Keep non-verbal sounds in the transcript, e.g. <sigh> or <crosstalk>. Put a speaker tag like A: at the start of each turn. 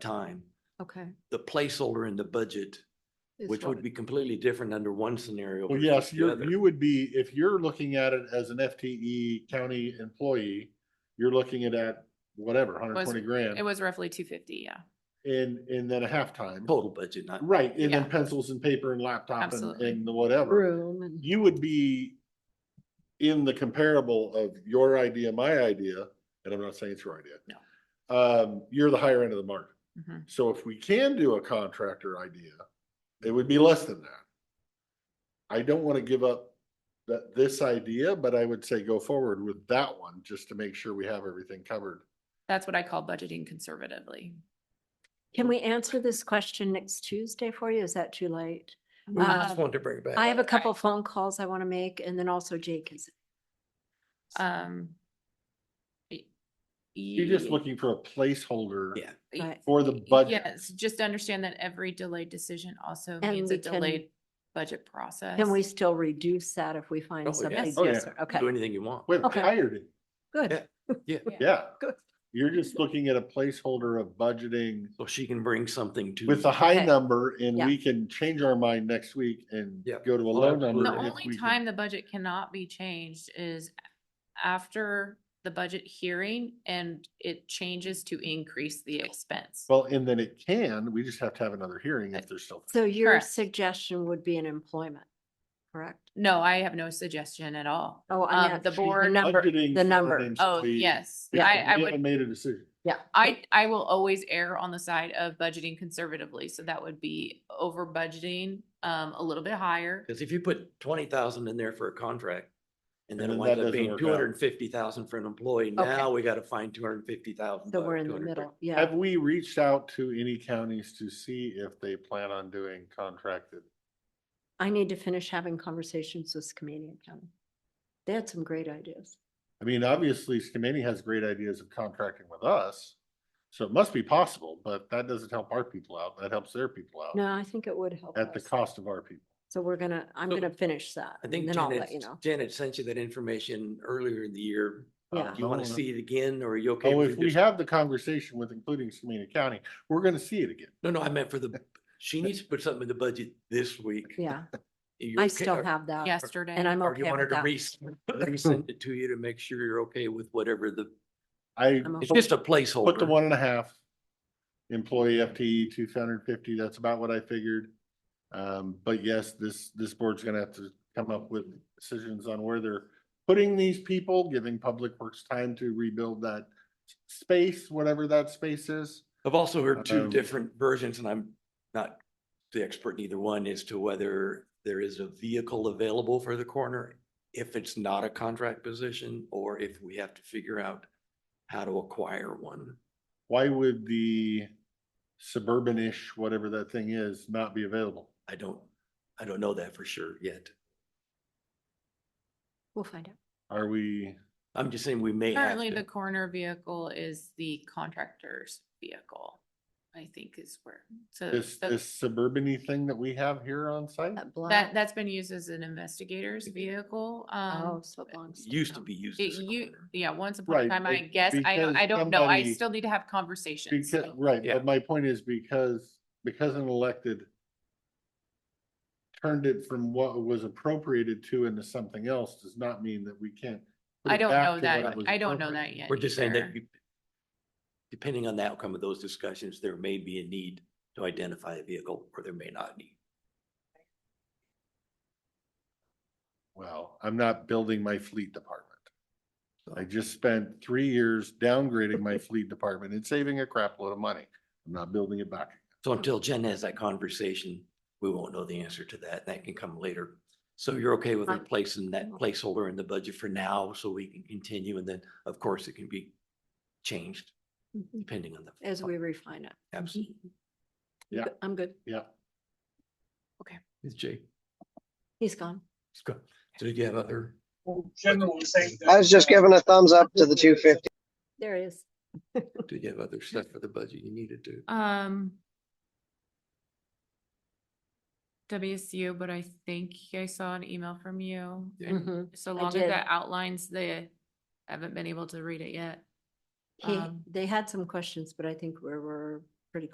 A: time.
B: Okay.
A: The placeholder in the budget,
B: is
A: which
B: what-
A: would be completely different under one scenario.
C: Well,
A: versus
C: yes,
A: the
C: you're,
A: other.
C: you would be, if you're looking at it as an FTE county employee, you're looking at at whatever, hundred twenty grand.
D: It was roughly two fifty, yeah.
C: And, and then a halftime.
A: Total budget, not.
C: Right, and then
D: Yeah.
C: pencils and paper and laptop and,
D: Absolutely.
C: and the whatever.
B: Room and.
C: You would be in the comparable of your idea, my idea, and I'm not saying it's your idea.
D: No.
C: Um, you're the higher end of the market.
D: Mhm.
C: So if we can do a contractor idea, it would be less than that. I don't want to give up that, this idea, but I would say go forward with that one, just to make sure we have everything covered.
D: That's what I call budgeting conservatively.
B: Can we answer this question next Tuesday for you? Is that too late?
A: We just
B: Um,
A: want to bring it back.
B: I have a
D: Okay.
B: couple phone calls I want to make and then also Jake is.
D: Um.
C: You're just looking for a placeholder
A: Yeah.
B: Right.
C: for the budget.
D: Yes, just understand that every delayed decision also
B: And
D: means
B: we
D: a
B: can-
D: delayed budget process.
B: Can we still reduce that if we
A: Oh,
B: find
A: yes.
B: something?
C: Oh,
B: Yes,
C: yeah.
B: sir. Okay,
A: Do anything you want.
C: We've
B: Okay.
C: hired it.
B: good.
C: Yeah,
B: Good.
C: you're just looking at a placeholder of budgeting
A: So she can bring something to.
C: with a high
B: Okay.
C: number and
B: Yeah.
C: we can change our mind next week and
A: Yep.
C: go to a
A: Well,
C: low number.
D: The
A: absolutely.
C: if we can-
D: only time the budget cannot be changed is after the budget hearing and it changes to increase the expense.
C: Well, and then it can, we just have to have another hearing if there's still.
B: So your
D: Correct.
B: suggestion would be an employment, correct?
D: No, I have no suggestion at all.
B: Oh, I
D: Um,
B: meant
D: the
C: She's
D: board,
B: number-
C: budgeting
B: the
C: for
B: number.
C: an
D: oh,
C: employee.
D: yes,
C: We
D: I,
C: haven't-
D: I
C: we
D: would
C: haven't Made a decision.
B: Yeah.
D: I, I will always err on the side of budgeting conservatively, so that would be over budgeting, um, a little bit higher.
A: Because if you put twenty thousand in there for a contract and then it
C: And then
A: winds
C: that
A: up
C: doesn't
A: being
C: work out.
A: two hundred and fifty thousand for an employee,
B: Okay.
A: now we got to find two hundred and fifty thousand.
B: So we're in the middle, yeah.
C: Have we reached out to any counties to see if they plan on doing contracted?
B: I need to finish having conversations with Skamania County. They had some great ideas.
C: I mean, obviously Skamania has great ideas of contracting with us. So it must be possible, but that doesn't help our people out. That helps their people
A: Oh.
C: out.
B: No, I think it would help
C: At the
B: us.
C: cost of our people.
B: So we're gonna, I'm
A: So,
B: gonna finish that.
A: I think
B: And then I'll let
A: Janet,
B: you know.
A: Janet sent you that information earlier in the year.
B: Yeah.
A: Do you want
C: Oh,
A: to see it again or are you okay?
C: Oh,
A: with
C: if
A: it
C: we
A: just-
C: have the conversation with including Skamania County, we're gonna see it again.
A: No, no, I meant for the, she needs to put something in the budget this week.
B: Yeah,
A: Are you
B: I
A: okay-
B: still
A: or-
B: have that.
D: Yesterday.
B: And I'm
A: Or do you
B: okay
A: want her
B: with
A: to
B: that. <laughs>
A: res- resend it to you to make sure you're okay with whatever the,
C: I
B: I'm
A: it's
B: okay.
A: just a
C: put the
A: placeholder.
C: one and a half. Employee FTE two hundred and fifty, that's about what I figured. Um, but yes, this, this board's gonna have to come up with decisions on where they're putting these people, giving Public Works time to rebuild that space, whatever that space is.
A: I've also heard two
C: Um,
A: different versions and I'm not the expert in either one as to whether there is a vehicle available for the coroner. If it's not a contract position or if we have to figure out how to acquire one.
C: Why would the suburban-ish, whatever that thing is, not be available?
A: I don't, I don't know that for sure yet.
B: We'll find out.
C: Are we,
A: I'm just saying we may have
D: Currently, the
A: to.
D: coroner vehicle is the contractor's vehicle, I think is where, so.
C: this,
D: the-
C: this suburban-y thing that we have here on site?
B: That black,
D: That, that's been used as an investigator's vehicle,
B: oh,
D: um,
B: so it belongs.
A: Used to
B: them.
A: be used
D: it,
A: as a
D: you,
A: coroner.
D: yeah, once upon
C: Right,
D: a time, I
C: it-
D: guess, I don't,
C: because
D: I don't know, I
C: somebody-
D: still need to have conversations.
C: Because,
D: so-
C: right,
A: yeah.
C: but my point is because, because an elected turned it from what was appropriated to into something else does not mean that we can't. put
D: I
C: it
D: don't
C: back
D: know
C: to what
D: that,
C: it was
D: I don't know
C: appropriate.
D: that yet.
A: We're just saying
D: either.
A: that you- depending on the outcome of those discussions, there may be a need to identify a vehicle or there may not need.
C: Well, I'm not building my fleet department. I just spent three years downgrading my fleet department and saving a crap load of money. I'm not building it back.
A: So until Jen has that conversation, we won't know the answer to that. That can come later. So you're okay with
B: Fine.
A: replacing that placeholder in the budget for now so we can continue and then, of course, it can be changed
B: Mhm.
A: depending on the.
B: As we refine it.
A: Absolutely.
B: You
C: Yeah.
B: good? I'm good.
C: Yeah.
A: With Jake.
B: He's gone.
A: So did you have other?
E: I was just giving a thumbs up to the two fifty.
B: There he is.
A: Do you have other stuff for the budget you needed to?
D: Um. WSU, but I think I saw an email from you.
A: Yeah.
D: and
B: Mhm.
D: So
B: I
D: long as
B: did.
D: that outlines the, I haven't been able to read it yet.
B: He,
D: Um,
B: they had some questions, but I think we were